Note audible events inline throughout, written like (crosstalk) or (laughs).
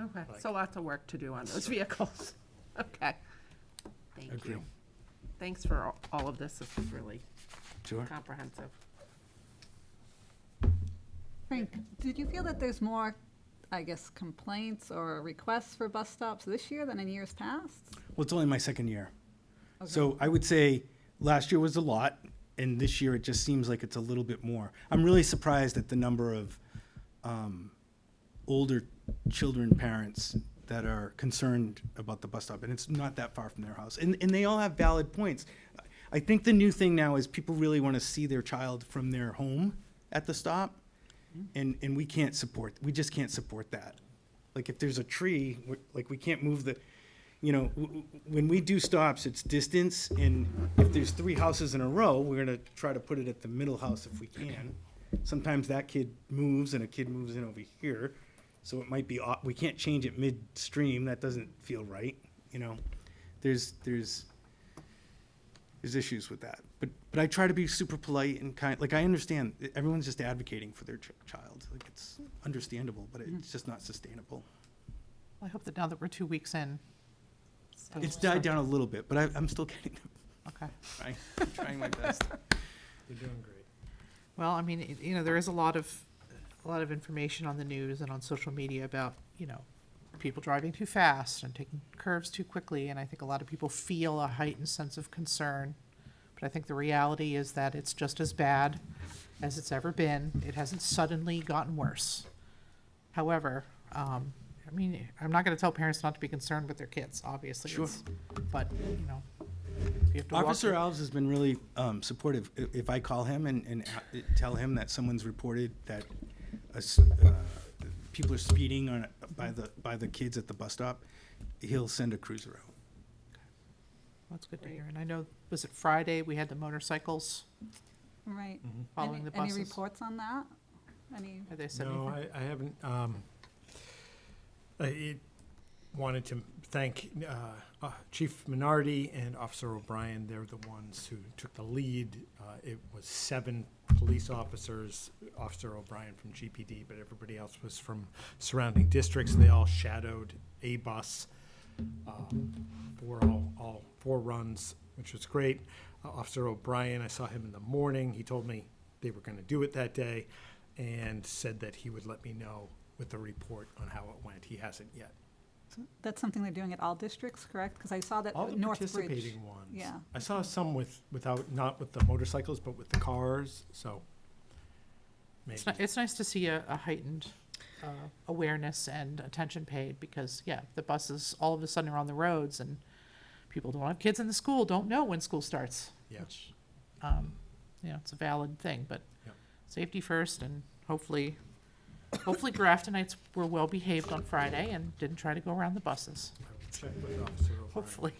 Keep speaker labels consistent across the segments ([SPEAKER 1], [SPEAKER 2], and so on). [SPEAKER 1] Okay, so lots of work to do on those vehicles. (laughs) Okay. Thank
[SPEAKER 2] Agree.
[SPEAKER 1] you. Thanks for all- all of this. This is really
[SPEAKER 2] Sure.
[SPEAKER 1] comprehensive.
[SPEAKER 3] Frank, did you feel that there's more, I guess, complaints or requests for bus stops this year than in years past?
[SPEAKER 2] Well, it's only my second year. So I would say last year was a lot, and this year it just seems like it's a little bit more. I'm really surprised at the number of um, older children, parents that are concerned about the bus stop, and it's not that far from their house. And, and they all have valid points. I think the new thing now is people really want to see their child from their home at the stop, and, and we can't support, we just can't support that. Like, if there's a tree, we're- like, we can't move the, you know, w- w- when we do stops, it's distance, and if there's three houses in a row, we're gonna try to put it at the middle house if we can. Sometimes that kid moves and a kid moves in over here, so it might be, au- we can't change it midstream, that doesn't feel right, you know? There's, there's, there's issues with that. But, but I try to be super polite and kind, like, I understand, eh, everyone's just advocating for their ch- child, like, it's understandable, but it's just not sustainable.
[SPEAKER 4] Well, I hope that now that we're two weeks in. so-
[SPEAKER 2] It's died down a little bit, but I, I'm still (laughs) getting them.
[SPEAKER 4] Okay.
[SPEAKER 2] trying, trying my best.
[SPEAKER 5] You're doing great.
[SPEAKER 4] Well, I mean, it- you know, there is a lot of, a lot of information on the news and on social media about, you know, people driving too fast and taking curves too quickly, and I think a lot of people feel a heightened sense of concern. But I think the reality is that it's just as bad as it's ever been. It hasn't suddenly gotten worse. However, um, I mean, I'm not gonna tell parents not to be concerned with their kids, obviously.
[SPEAKER 2] Sure.
[SPEAKER 4] it's- But, you know, if you have to walk.
[SPEAKER 2] (laughs) Officer
[SPEAKER 4] your-
[SPEAKER 2] Alves has been really um, supportive. I- If I call him and, and a- tell him that someone's reported that a s- uh, people are speeding on, by the, by the kids at the bus stop, he'll send a cruiser out.
[SPEAKER 4] That's good to hear. And I know, was it Friday, we had the motorcycles
[SPEAKER 3] Right.
[SPEAKER 4] following
[SPEAKER 3] Any-
[SPEAKER 4] the
[SPEAKER 3] Any
[SPEAKER 4] buses?
[SPEAKER 3] reports on that? Any,
[SPEAKER 4] Have they said
[SPEAKER 5] No,
[SPEAKER 4] anything?
[SPEAKER 5] I, I haven't, um, I it- wanted to thank, uh, uh, Chief Minardi and Officer O'Brien. They're the ones who took the lead. Uh, it was seven police officers, Officer O'Brien from GPD, but everybody else was from surrounding districts. They all shadowed a bus, uh, for all, all four runs, which was great. Uh, Officer O'Brien, I saw him in the morning. He told me they were gonna do it that day and said that he would let me know with the report on how it went. He hasn't yet.
[SPEAKER 3] that's something they're doing at all districts, correct? Because I saw that
[SPEAKER 5] All the
[SPEAKER 3] Northbridge.
[SPEAKER 5] participating ones.
[SPEAKER 3] Uh, yeah.
[SPEAKER 5] I saw some with, without, not with the motorcycles, but with the cars, so maybe.
[SPEAKER 4] It's, ni- it's nice to see a, a heightened uh, awareness and attention paid because, yeah, the buses all of a sudden are on the roads and people don't have kids in the school, don't know when school starts.
[SPEAKER 5] Yeah.
[SPEAKER 4] which, um, You know, it's a valid thing, but
[SPEAKER 5] Yeah.
[SPEAKER 4] safety first and hopefully, hopefully Graftonites were well behaved on Friday and didn't try to go around the buses.
[SPEAKER 5] I will Check with Officer O'Brien.
[SPEAKER 4] hopefully.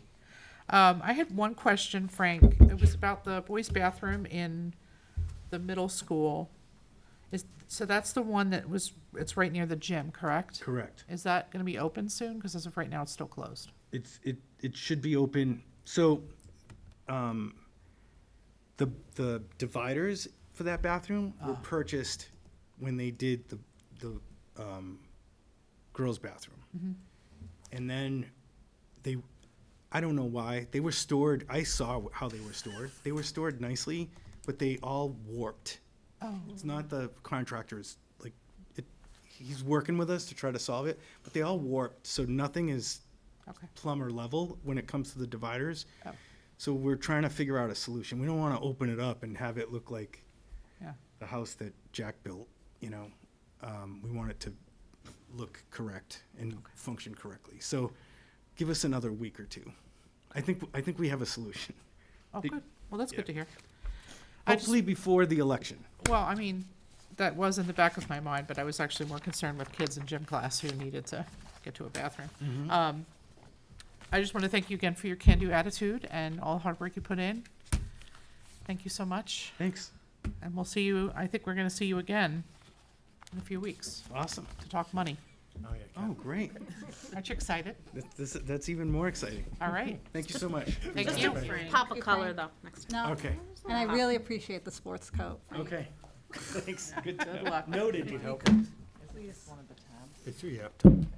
[SPEAKER 4] Um, I had one question, Frank. It was about the boys' bathroom in the middle school. Is, so that's the one that was, it's right near the gym, correct?
[SPEAKER 2] Correct.
[SPEAKER 4] Is that gonna be open soon? Because as of right now, it's still closed.
[SPEAKER 2] It's, it, it should be open, so, um, the, the dividers for that bathroom were purchased when they did the, the, um, girls' bathroom. And then they, I don't know why, they were stored, I saw how they were stored. They were stored nicely, but they all warped.
[SPEAKER 4] Oh.
[SPEAKER 2] It's not the contractor's, like, it, he's working with us to try to solve it, but they all warped, so nothing is
[SPEAKER 4] Okay.
[SPEAKER 2] plumber level when it comes to the dividers.
[SPEAKER 4] Oh.
[SPEAKER 2] So we're trying to figure out a solution. We don't want to open it up and have it look like
[SPEAKER 4] Yeah.
[SPEAKER 2] the house that Jack built, you know. Um, we want it to look correct and function correctly. So give us another week or two. I think, I think we have a solution.
[SPEAKER 4] Oh,
[SPEAKER 2] Be-
[SPEAKER 4] good. Well, that's good to hear. I just-
[SPEAKER 2] Hopefully before the election.
[SPEAKER 4] Well, I mean, that was in the back of my mind, but I was actually more concerned with kids in gym class who needed to get to a bathroom. Um, I just want to thank you again for your can-do attitude and all the hard work you put in. Thank you so much,
[SPEAKER 2] Thanks.
[SPEAKER 4] and we'll see you, I think we're going to see you again in a few weeks
[SPEAKER 2] Awesome.
[SPEAKER 4] to talk money.
[SPEAKER 5] Oh, yeah,
[SPEAKER 2] Oh, great.
[SPEAKER 4] Aren't you excited?
[SPEAKER 2] That- This, that's even more exciting.
[SPEAKER 4] All right,
[SPEAKER 2] Thank you so much.
[SPEAKER 4] thank
[SPEAKER 6] Just
[SPEAKER 4] you.
[SPEAKER 6] to pop a
[SPEAKER 3] Good
[SPEAKER 6] color
[SPEAKER 3] point.
[SPEAKER 6] though, next time.
[SPEAKER 3] No,
[SPEAKER 2] Okay,
[SPEAKER 3] and I really appreciate the sports coat.
[SPEAKER 2] okay. (laughs) Thanks. Good to
[SPEAKER 4] Good luck.
[SPEAKER 2] Noted.
[SPEAKER 5] It's, yeah,